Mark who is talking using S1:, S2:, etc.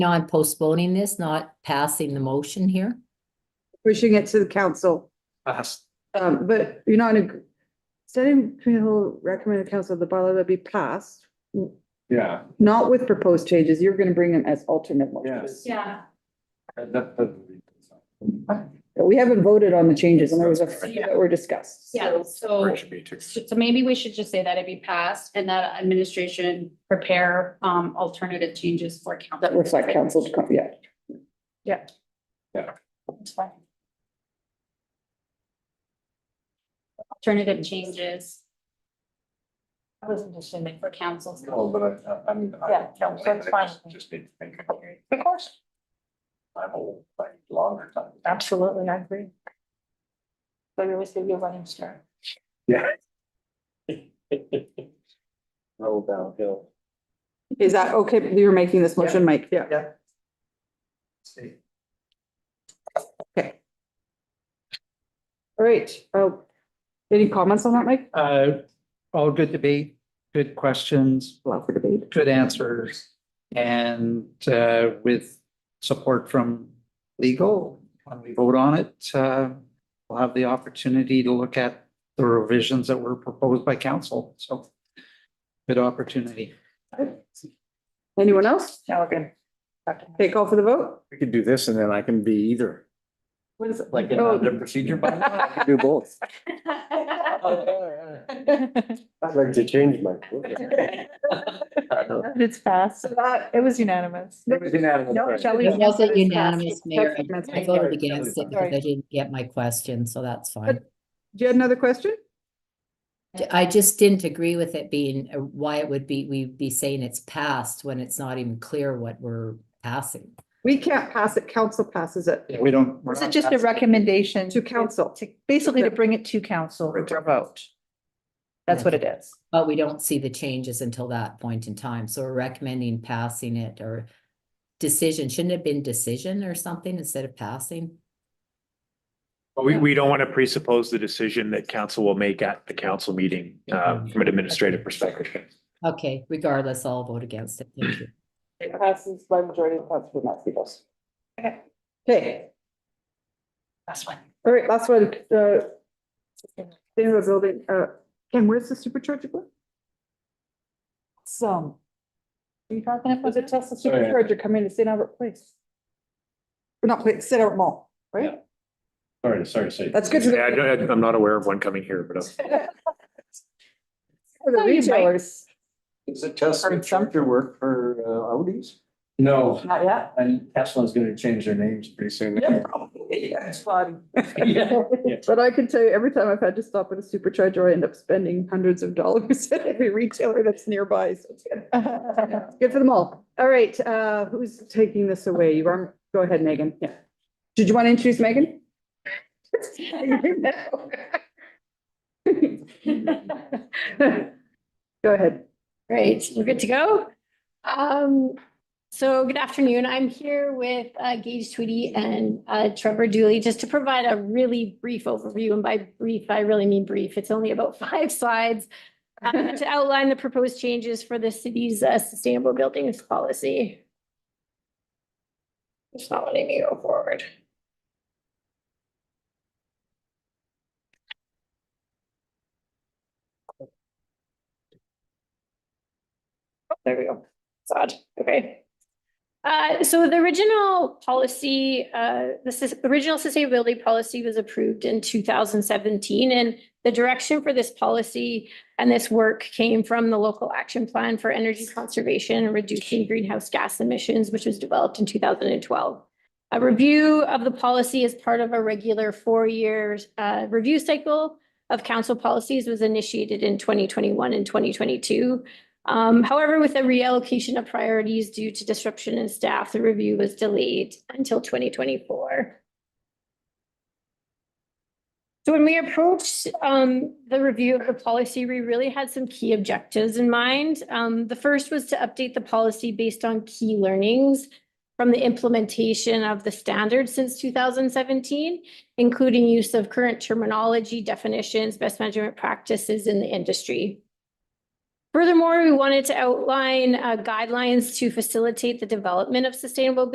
S1: on postponing this, not passing the motion here?
S2: pushing it to the council.
S3: Pass.
S2: Um, but you're not, in- setting community hall recommended council, the bylaw that be passed,
S3: Yeah,
S2: not with proposed changes, you're gonna bring them as alternate motions.
S3: Yes.
S4: Yeah,
S3: that, that- that.
S2: But We haven't voted on the changes and there was a few that were discussed.
S4: yeah, so,
S3: Or it should be two.
S4: so maybe we should just say that it be passed and that administration prepare, um, alternative changes for council.
S2: That reflect council, yeah.
S4: That's fine. Alternative changes. I wasn't just saying for councils.
S3: No, but I- I, I mean. I-
S4: Yeah, no, so it's
S3: I just-
S4: fine.
S3: Just need to think.
S4: Of course,
S3: I'm old, like longer time.
S4: absolutely, I agree. But it was a running start.
S3: Yeah. Roll downhill.
S2: Is that okay? You're making this motion, Mike? Yeah.
S3: See.
S2: All right. Oh, any comments on that, Mike?
S5: Uh, all good debate, good questions,
S2: Allow for debate.
S5: good answers. And, uh, with support from legal, when we vote on it, uh, we'll have the opportunity to look at the revisions that were proposed by council. So good opportunity.
S2: Anyone else? Take call for the vote?
S6: We could do this and then I can be either.
S2: What is it?
S3: Like in
S2: Oh.
S3: the procedure by.
S6: Do both.
S3: I'd like to change my.
S7: It's passed. It was unanimous. No, Shelley.
S1: It wasn't
S7: it's
S1: unanimous, Mayor. I-
S2: That's-
S1: I voted against it because I
S7: Sorry.
S1: didn't get my question, so that's fine.
S2: Do you have another question?
S1: I just didn't agree with it being, uh, why it would be, we'd be saying it's passed when it's not even clear what we're passing.
S2: We can't pass it. Council passes it
S5: Yeah, We don't. we're
S7: This is
S5: not
S7: just a
S5: passing-
S7: recommendation.
S2: to council.
S7: to- Basically to bring it to council for a vote. That's what it is.
S1: But we don't see the changes until that point in time, so we're recommending passing it or decision, shouldn't it have been decision or something instead of passing?
S8: But we, we don't want to presuppose the decision that council will make at the council meeting, uh, from an administrative perspective.
S1: Okay, regardless, I'll vote against it, thank you.
S2: It passes by majority of votes, but not vetoes. Okay,
S7: That's one.
S2: all right, last one, uh. Sustainable building, uh, Ken, where's the supercharger going?
S7: So. Are you talking
S2: Was
S7: about
S2: it
S7: the
S2: Tesla
S3: Oh, yeah.
S2: supercharger coming to St. Albert Place? Or Not Place, St. Albert Mall, right?
S3: Sorry, sorry, to say.
S2: That's good for
S8: Yeah, I
S2: the,
S8: don't- I'm not aware of one coming here, but. I'm-
S2: for the
S7: Oh, you might.
S2: retailers.
S3: Is it Tesla
S2: Heard some.
S3: charger work for uh, Audis? No,
S2: Not yet.
S3: and Tesla's gonna change their names pretty soon.
S2: It's fun.
S3: Yeah.
S2: But I can tell you, every time I've had to stop at a supercharger, I end up spending hundreds of dollars at every retailer that's nearby, so it's good. It's Good for them all. All right, uh, who's taking this away? You are, go ahead, Megan, yeah. Did you want to introduce Megan? Go ahead.
S9: Great, we're good to go. Um, so good afternoon. I'm here with uh, Gage Tweedy and uh, Trevor Dooley, just to provide a really brief overview. And by brief, I really mean brief. It's only about five slides uh, to outline the proposed changes for the city's uh, sustainable buildings policy. It's not letting me go forward. There we go. It's odd. Okay. Uh, so the original policy, uh, the sus- original sustainability policy was approved in two thousand seventeen and the direction for this policy and this work came from the local action plan for energy conservation and reducing greenhouse gas emissions, which was developed in two thousand and twelve. A review of the policy as part of a regular four-year, uh, review cycle of council policies was initiated in twenty twenty-one and twenty twenty-two. Um, however, with the reallocation of priorities due to disruption in staff, the review was delayed until twenty twenty-four. So when we approached, um, the review of the policy, we really had some key objectives in mind. Um, the first was to update the policy based on key learnings from the implementation of the standards since two thousand seventeen, including use of current terminology, definitions, best management practices in the industry. Furthermore, we wanted to outline uh, guidelines to facilitate the development of sustainable